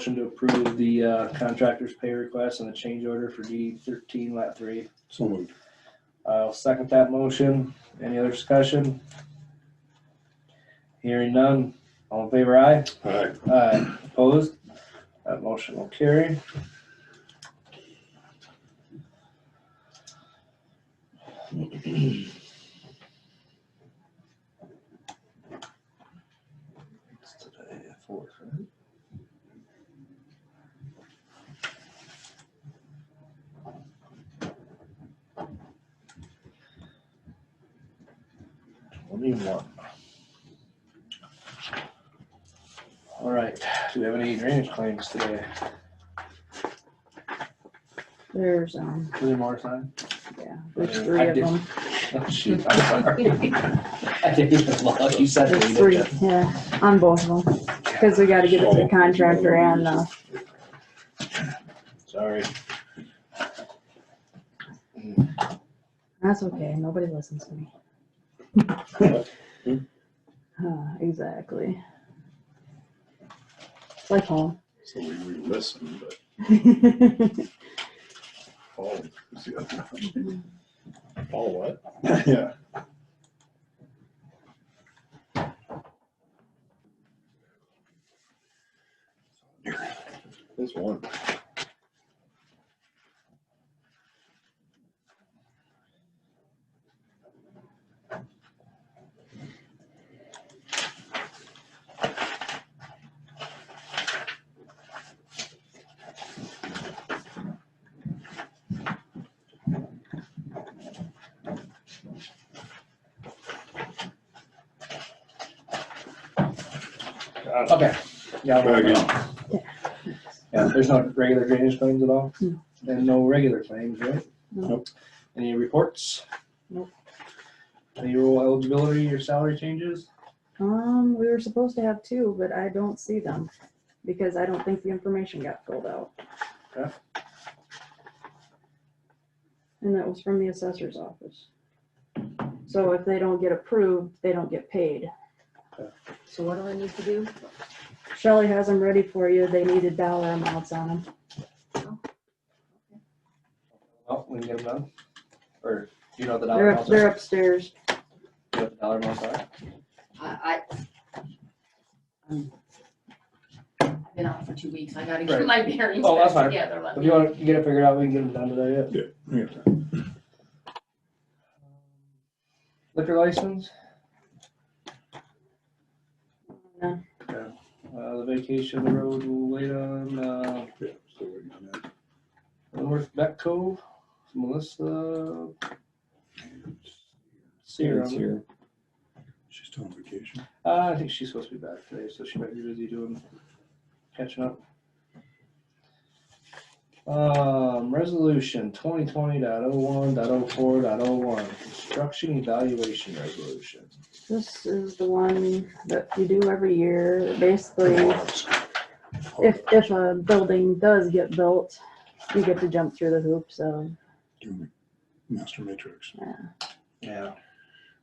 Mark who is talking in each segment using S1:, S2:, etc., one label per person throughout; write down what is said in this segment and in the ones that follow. S1: Motion to approve the uh, contractor's pay request and the change order for DD thirteen lat three.
S2: So moved.
S1: I'll second that motion. Any other discussion? Hearing none. All in favor, aye?
S2: Aye.
S1: Aye. Uh, Opposed? That motion will carry. It's today, fourth, right? Twenty-one. All right, do we have any drainage claims today?
S3: There's, um,
S1: Three more time?
S3: yeah, there's
S1: Yeah,
S3: three
S1: I
S3: of
S1: did-
S3: them.
S1: Oh, shoot, I'm sorry. I didn't even look, you said
S3: There's
S1: we
S3: three,
S1: did.
S3: yeah, on both of them, because we gotta give it to the contractor and, uh,
S1: Sorry.
S3: that's okay, nobody listens to me.
S1: Hmm?
S3: Uh, Exactly. It's like home.
S2: So we we listen, but Paul is the other.
S4: Paul, what?
S2: one. Yeah. This one.
S4: God,
S1: Okay. Yeah,
S2: Very
S1: well,
S2: good.
S1: yeah, there's no regular drainage claims at all?
S3: No.
S1: And no regular claims, right?
S3: No.
S2: Nope.
S1: Any reports?
S3: Nope.
S1: Any rule eligibility or salary changes?
S3: Um, we were supposed to have two, but I don't see them, because I don't think the information got filled out.
S1: Okay.
S3: And that was from the assessor's office. So if they don't get approved, they don't get paid.
S5: So what do I need to do?
S3: Shelley has them ready for you, they needed dollar amounts on them.
S1: Oh, we can get them done? Or do you know what the dollar
S3: They're, up-
S1: amounts
S3: they're
S1: are?
S3: upstairs.
S1: Do you know what the Dollar amounts are?
S5: I, I. I'm- I've been out for two weeks. I gotta get my bearings
S1: Oh, that's
S5: back
S1: fine.
S5: together. Let
S1: If
S5: me-
S1: you want, you get it figured out, we can get them done today, yeah.
S2: Yeah.
S1: Liquor license?
S3: No.
S1: Uh, the vacation of the road will wait on, uh,
S2: Yeah, so uh, we're gonna-
S1: North Beck Cove, Melissa
S2: It's
S1: Sear.
S2: here. She's still on vacation.
S1: Uh, I think she's supposed to be back today, so she might be busy doing, catching up. Um, resolution twenty twenty dot oh one dot oh four dot oh one, construction evaluation resolution.
S3: This is the one that you do every year, basically. if, if a building does get built, you get to jump through the hoops of,
S2: Doing Master matrix.
S1: Yeah,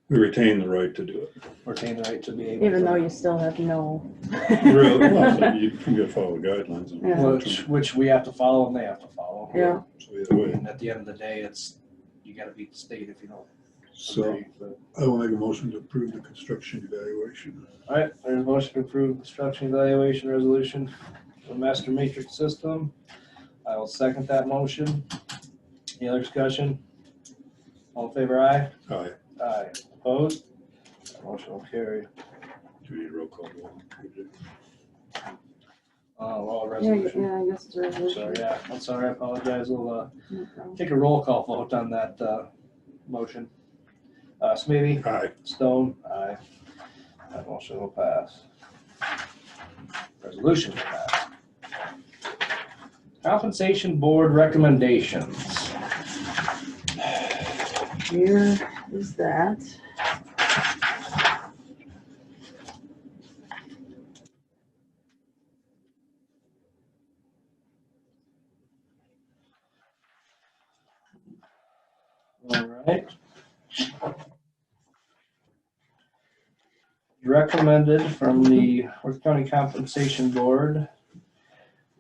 S2: We retain the right to do it.
S1: retain the right to be able.
S3: even
S1: to-
S3: though you still have no.
S2: Really? Well, so You can go follow the guidelines. and-
S3: Yeah.
S1: Which, which we have to follow and they have to follow.
S3: Yeah,
S2: So either way.
S1: And at the end of the day, it's, you gotta beat the state if you don't
S2: So
S1: agree, but.
S2: I will make a motion to approve the construction evaluation.
S1: All right, there's a motion to approve construction evaluation resolution for the master matrix system. I will second that motion. Any other discussion? All in favor, aye?
S2: Aye.
S1: Aye. Opposed? That Motion will carry.
S2: Do you need a roll call? vote?
S1: Uh, well,
S3: yeah,
S1: resolution.
S3: yeah, I guess it's
S1: So,
S3: a resolution.
S1: yeah, I'm sorry, I apologize. We'll, uh,
S3: No problem.
S1: take a roll call vote on that, uh, motion. Uh, Smithy?
S2: Aye.
S1: Stone? Aye. That motion will pass. Resolution will pass. Compensation Board recommendations.
S3: Here is that.
S1: All right. Recommended from the Worth County Compensation Board